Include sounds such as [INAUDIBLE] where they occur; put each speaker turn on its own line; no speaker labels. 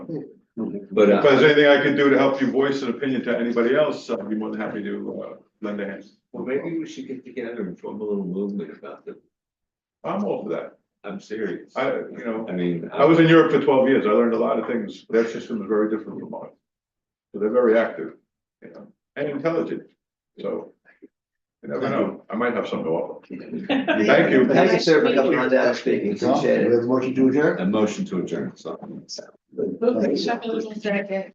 But,
If there's
uh,
anything I can do to help you voice an opinion to anybody else, I'd be more than happy to, uh, lend a hand.
well, maybe we should get together and form a little movement about the,
I'm all for that.
I'm serious.
I, you know,
I mean.
I was in Europe for twelve years. I learned a lot of things. Their system is very different from ours. So they're very active, you know, and intelligent. So you never know. I might have something to offer. [LAUGHS] Thank you.
Thank you, sir, for coming on down.
Speaking,
Well,
appreciate
We
it.
have a motion to adjourn.
A motion to adjourn, so.
Move the shovel in the jacket.